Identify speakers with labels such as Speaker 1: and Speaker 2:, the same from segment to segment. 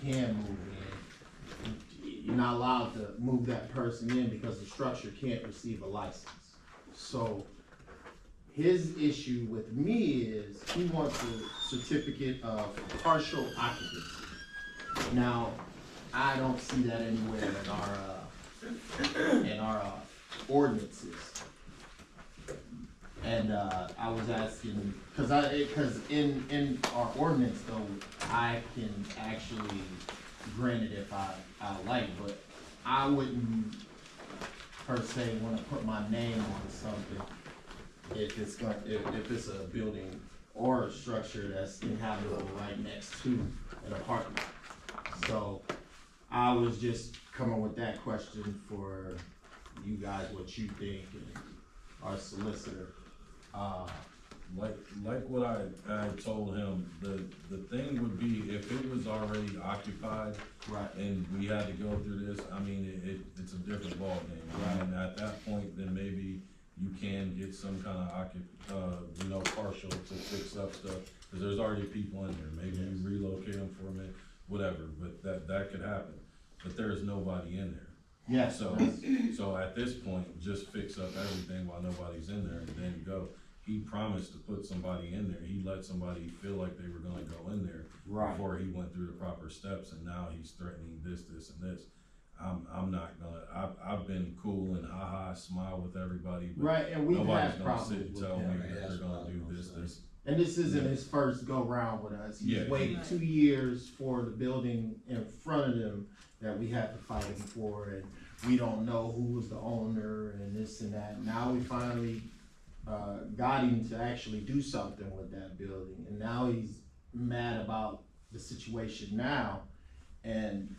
Speaker 1: can move it in. You're not allowed to move that person in because the structure can't receive a license. So his issue with me is he wants a certificate of partial occupancy. Now, I don't see that anywhere in our, uh, in our uh, ordinances. And uh, I was asking, cause I, it- cause in, in our ordinance though, I can actually grant it if I, I like, but I wouldn't per se wanna put my name on something if it's gonna, if, if it's a building or a structure that's inhabitable right next to an apartment. So I was just coming with that question for you guys, what you think and our solicitor. Uh,
Speaker 2: Like, like what I, I told him, the, the thing would be if it was already occupied
Speaker 1: right,
Speaker 2: and we had to go through this, I mean, it, it, it's a different ballgame. And at that point, then maybe you can get some kind of occup, uh, you know, partial to fix up stuff, cause there's already people in there, maybe you
Speaker 1: Yes.
Speaker 2: relocate them for a minute, whatever, but that, that could happen. But there is nobody in there.
Speaker 1: yeah,
Speaker 2: So,
Speaker 1: so,
Speaker 2: so at this point, just fix up everything while nobody's in there and then go. He promised to put somebody in there. He let somebody feel like they were gonna go in there
Speaker 1: right,
Speaker 2: before he went through the proper steps and now he's threatening this, this and this. I'm, I'm not gonna, I've, I've been cool and ha-ha, smile with everybody, but
Speaker 1: right, and we've
Speaker 2: nobody's
Speaker 1: had
Speaker 2: gonna sit
Speaker 1: problems
Speaker 2: and
Speaker 1: with
Speaker 2: tell
Speaker 1: him.
Speaker 2: me
Speaker 3: Right,
Speaker 2: that they're
Speaker 3: that's what
Speaker 2: gonna
Speaker 3: I
Speaker 2: do
Speaker 3: was
Speaker 2: this,
Speaker 3: gonna
Speaker 2: this.
Speaker 1: And this isn't
Speaker 2: Yeah.
Speaker 1: his first go round with us. He's
Speaker 2: Yeah.
Speaker 1: waited
Speaker 4: Right.
Speaker 1: two years for the building in front of him that we had to fight him for, and we don't know who was the owner and this and that. Now we finally uh, got him to actually do something with that building, and now he's mad about the situation now. And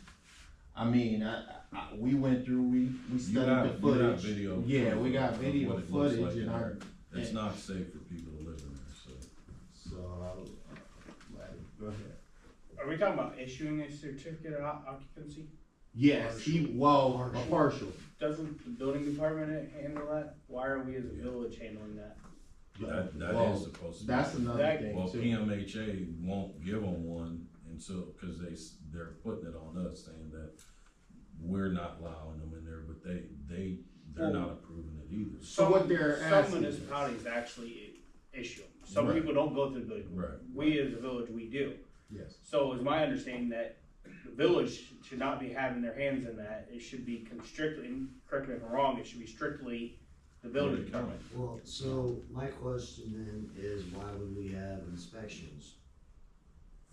Speaker 1: I mean, I, I, we went through, we, we
Speaker 2: You
Speaker 1: studied
Speaker 2: have-
Speaker 1: the
Speaker 2: you have
Speaker 1: footage.
Speaker 2: video
Speaker 1: yeah, we
Speaker 2: of-
Speaker 1: got
Speaker 2: of
Speaker 1: video
Speaker 2: what it looks
Speaker 1: footage,
Speaker 2: like in
Speaker 1: and I
Speaker 2: there. It's not safe for people to live in there, so.
Speaker 1: so I'll let him go ahead.
Speaker 5: Are we talking about issuing a certificate of o- occupancy?
Speaker 1: Yes, he, well, a partial.
Speaker 5: Doesn't the building department handle that? Why are we as a
Speaker 2: Yeah.
Speaker 5: village handling that?
Speaker 2: That, that
Speaker 1: Well,
Speaker 2: is supposed to be.
Speaker 1: That's another
Speaker 5: That-
Speaker 1: thing
Speaker 2: Well,
Speaker 1: too.
Speaker 2: PMHA won't give them one until, cause they, s- they're putting it on us saying that we're not allowing them in there, but they, they, they're
Speaker 1: Oh.
Speaker 2: not approving it either.
Speaker 1: So what
Speaker 5: Some-
Speaker 1: they're
Speaker 5: Some
Speaker 1: asking is-
Speaker 5: municipalities actually i- issue them. Some
Speaker 2: Right.
Speaker 5: people don't go through the building.
Speaker 2: Right.
Speaker 5: We as a village, we do.
Speaker 1: Yes,
Speaker 5: So it's my understanding that the village should not be having their hands in that. It should be constrictly, and correct me if I'm wrong, it should be strictly the building department.
Speaker 3: Well, so my question then is why would we have inspections?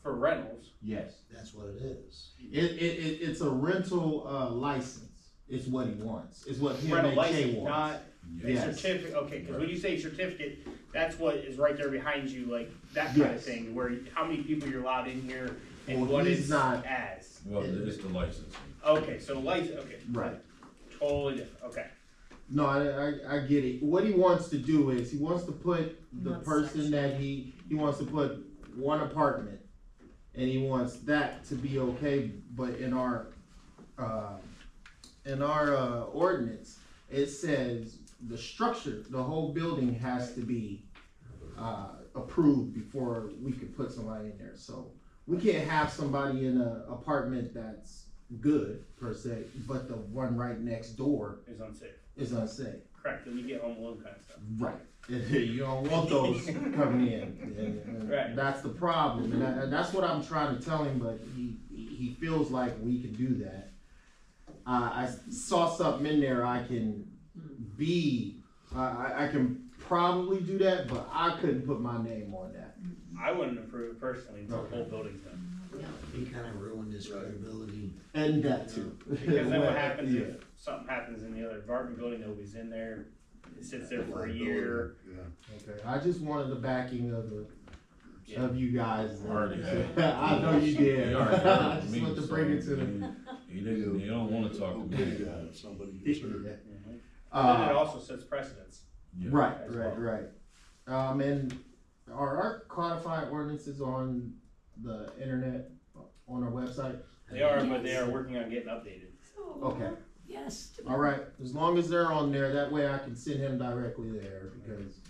Speaker 5: For rentals,
Speaker 1: yes.
Speaker 3: That's what it is.
Speaker 1: It, it, it, it's a rental, uh, license is what he wants, is what
Speaker 5: rental
Speaker 1: PMHA
Speaker 5: license,
Speaker 1: wants.
Speaker 5: not A
Speaker 1: Yes.
Speaker 5: certificate, okay, because when
Speaker 2: Right.
Speaker 5: you say certificate, that's what is right there behind you, like that kind of
Speaker 1: Yes.
Speaker 5: thing, where you- how many people you're allowed in here and
Speaker 1: Well,
Speaker 5: what
Speaker 1: he's
Speaker 5: it's
Speaker 1: not-
Speaker 5: as.
Speaker 2: Well, it's the licensing.
Speaker 5: Okay, so license, okay,
Speaker 1: Right.
Speaker 5: totally different, okay.
Speaker 1: No, I, I, I get it. What he wants to do is, he wants to put the
Speaker 4: Not
Speaker 1: person
Speaker 4: section.
Speaker 1: that he, he wants to put one apartment. And he wants that to be okay, but in our, uh, in our, uh, ordinance, it says the structure, the whole building has to be, uh, approved before we could put somebody in there, so. We can't have somebody in a apartment that's good per se, but the one right next door
Speaker 5: It's unsafe,
Speaker 1: is unsafe.
Speaker 5: correct, then you get home alone kind of stuff.
Speaker 1: Right. you don't want those coming in. And- and
Speaker 5: Right.
Speaker 1: That's the problem, and, that- and that's what I'm trying to tell him. But he he he feels like we can do that. Uh, I s- saw something in there. I can be. I I I can probably do that, but I couldn't put my name on that.
Speaker 5: I wouldn't approve it personally until the
Speaker 1: Okay.
Speaker 5: whole building's done,
Speaker 3: He kind of ruined his credibility.
Speaker 1: And that too.
Speaker 5: because then
Speaker 1: Well,
Speaker 5: what happens
Speaker 1: yeah.
Speaker 5: if something happens in the other apartment building, nobody's in there, it sits there for a year.
Speaker 1: Okay. I just wanted the backing of the.
Speaker 5: Yeah.
Speaker 1: Of you guys,
Speaker 2: Already had it.
Speaker 1: I know you did.
Speaker 2: He already heard
Speaker 1: I
Speaker 2: from
Speaker 1: just
Speaker 2: me,
Speaker 1: wanted to
Speaker 2: so
Speaker 1: bring it to them.
Speaker 2: He he didn't, they don't wanna talk to me.
Speaker 6: Okay, uh, Somebody gets hurt.
Speaker 5: Mhm. But then it
Speaker 1: Uh,
Speaker 5: also sets precedence.
Speaker 2: Yeah.
Speaker 1: Right,
Speaker 5: as
Speaker 1: right,
Speaker 5: well.
Speaker 1: right. Um, and are our codified ordinances on the internet, on our website?
Speaker 5: They are, but they are working on getting updated.
Speaker 1: Okay,
Speaker 4: Yes. to-
Speaker 1: all right, as long as they're on there, that way I can send him directly there, because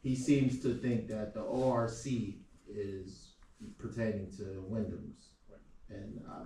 Speaker 1: he seems to think that the ORC is pertaining to Wyndham's. And uh, I